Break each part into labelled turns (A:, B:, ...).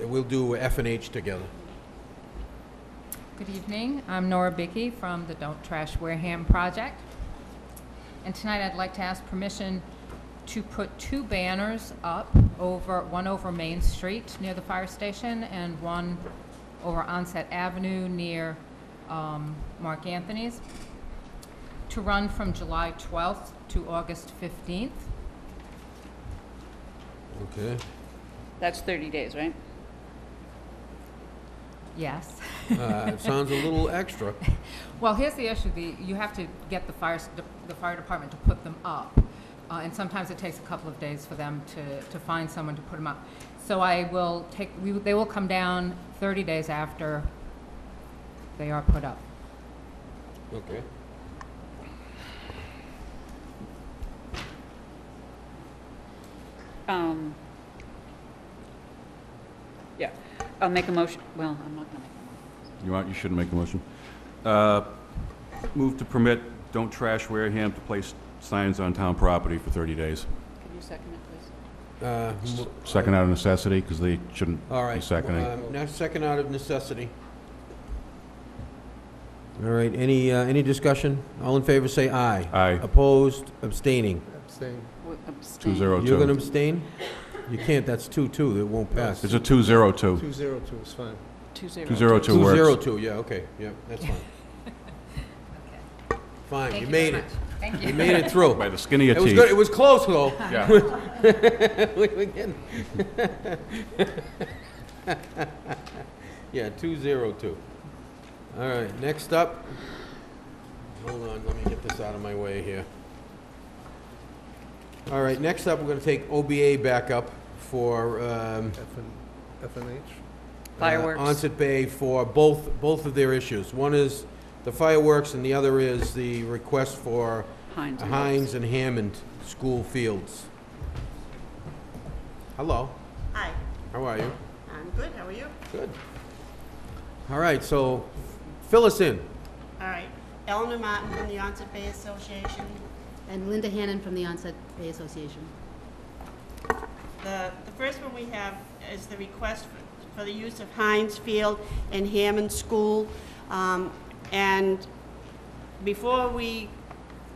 A: we'll do F and H together.
B: Good evening. I'm Nora Bickey from the Don't Trash Wareham Project. And tonight I'd like to ask permission to put two banners up over, one over Main Street near the fire station and one over Onset Avenue near um, Mark Anthony's, to run from July 12th to August 15th.
A: Okay.
C: That's 30 days, right?
B: Yes.
A: Uh, it sounds a little extra.
B: Well, here's the issue, the, you have to get the fire, s- de- the fire department to put them up. Uh, and sometimes it takes a couple of days for them to, to find someone to put them up. So I will take, we, will- they will come down thirty days after they are put up.
A: Okay.
C: Um, Yeah, I'll make a motion, well, I'm not gonna
D: You aren't, you shouldn't make the motion. Uh, Move to permit Don't Trash Wareham to place signs on town property for 30 days.
C: make, could you second it, please?
A: Uh,
D: S-
A: mo-
D: Second out of necessity, because they shouldn't
A: All
D: be
A: right.
D: seconding.
A: um, Now, second out of necessity. All right, any, uh, any discussion? All in favor, say aye.
D: Aye,
A: Opposed, abstaining.
C: W- abstain.
D: two zero
A: You're gonna
D: two.
A: abstain? You can't, that's two, two, it won't pass.
D: It's a two zero two.
E: 202 is fine.
C: Two zero.
D: Two zero two
A: Two, zero,
D: works.
A: two, yeah, okay, yeah, that's fine. Fine,
B: Thank
A: Oh, you
B: very
A: made it.
B: much. Thank
A: You
B: you.
A: made it through.
D: By the skin of your
A: It was good, it
D: teeth.
A: was close, though.
D: Yeah.
A: We were getting- Yeah, two zero two. All right, next up, hold on, let me get this out of my way here. All right, next up, we're gonna take OBA back up for, um,
E: F and, F and H?
A: uh,
C: Fireworks.
A: Onset Bay for both, both of their issues. One is the fireworks, and the other is the request for
C: Heinz. and
A: Hines and Hammond School Fields. Hello,
F: Hi,
A: how are you?
F: I'm good, how are you?
A: Good. All right, so fill us in.
F: All right, Eleanor Martin from the Onset Bay Association.
G: And Linda Hannon from the Onset Bay Association.
F: The, the first one we have is the request for- for the use of Heinz Field and Hammond School. Um, And before we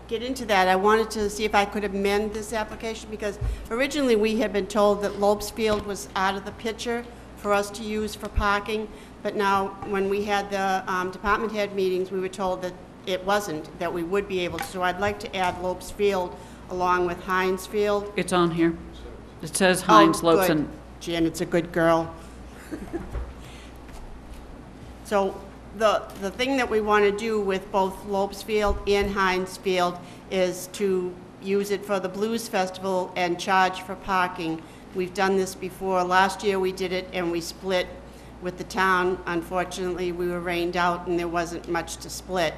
F: get into that, I wanted to see if I could amend this application, because originally we had been told that Lopes Field was out of the picture for us to use for parking, but now, when we had the um, department head meetings, we were told that it wasn't, that we would be able to. So I'd like to add Lopes Field along with Heinz Field.
C: It's on here. It says Heinz,
F: Oh,
C: Lopes,
F: good.
C: and
F: Janet's a good girl. So the, the thing that we want to do with both Lopes Field and Heinz Field is to use it for the Blues Festival and charge for parking. We've done this before. Last year, we did it and we split with the town. Unfortunately, we were rained out and there wasn't much to split.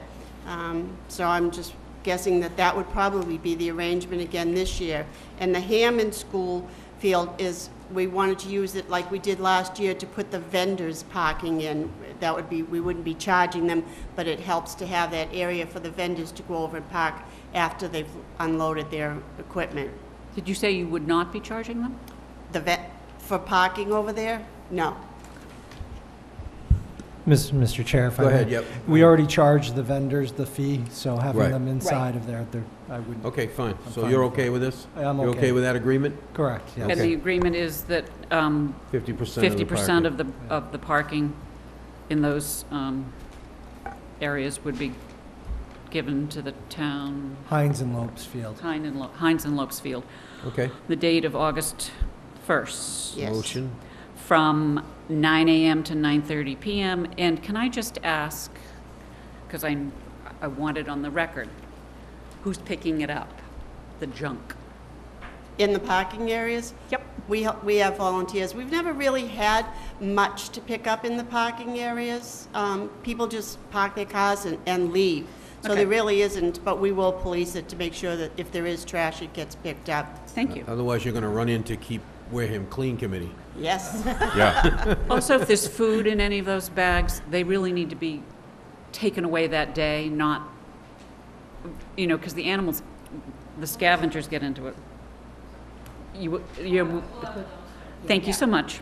F: Um, So I'm just guessing that that would probably be the arrangement again this year. And the Hammond School field is, we wanted to use it like we did last year to put the vendors parking in. That would be, we wouldn't be charging them, but it helps to have that area for the vendors to go over and park after they've unloaded their equipment.
C: did you say you would not be charging them?
F: The vet, for parking over there? No.
H: Mis- Mr. Chair, if I
A: Go
H: may.
A: ahead, yep.
H: We already charged the vendors the fee, so
A: Right.
H: having them inside of there, they're- I would,
A: Okay, fine.
H: I'm
A: So
H: fine
A: you're
H: with
A: okay with this?
H: I am
A: You're
H: okay.
A: okay with that agreement?
H: correct, yes.
C: And
A: Okay.
C: the agreement is that um,
A: Fifty percent of the
C: fifty percent
A: parking.
C: of the, of the parking in those um, areas would be given to the town,
H: Heinz and Lopes Field.
C: Heinz and Lo- Heinz and Lopes Field,
A: Okay.
C: the date of August first.
F: Yes.
A: Motion.
C: from 9 AM to 9:30 PM. And can I just ask, because I, I want it on the record, who's picking it up? The junk?
F: In the parking areas?
C: Yep.
F: We, ha- we have volunteers. We've never really had much to pick up in the parking areas. Um, People just park their cars and, and leave. So
C: Okay.
F: there really isn't, but we will police it to make sure that if there is trash, it gets picked up.
C: Thank you.
A: Otherwise, you're gonna run into Keep Wareham Clean Committee.
F: Yes.
D: Yeah,
C: Also, if there's food in any of those bags, they really need to be taken away that day, not, you know, because the animals, the scavengers get into it. You, you, thank you so much.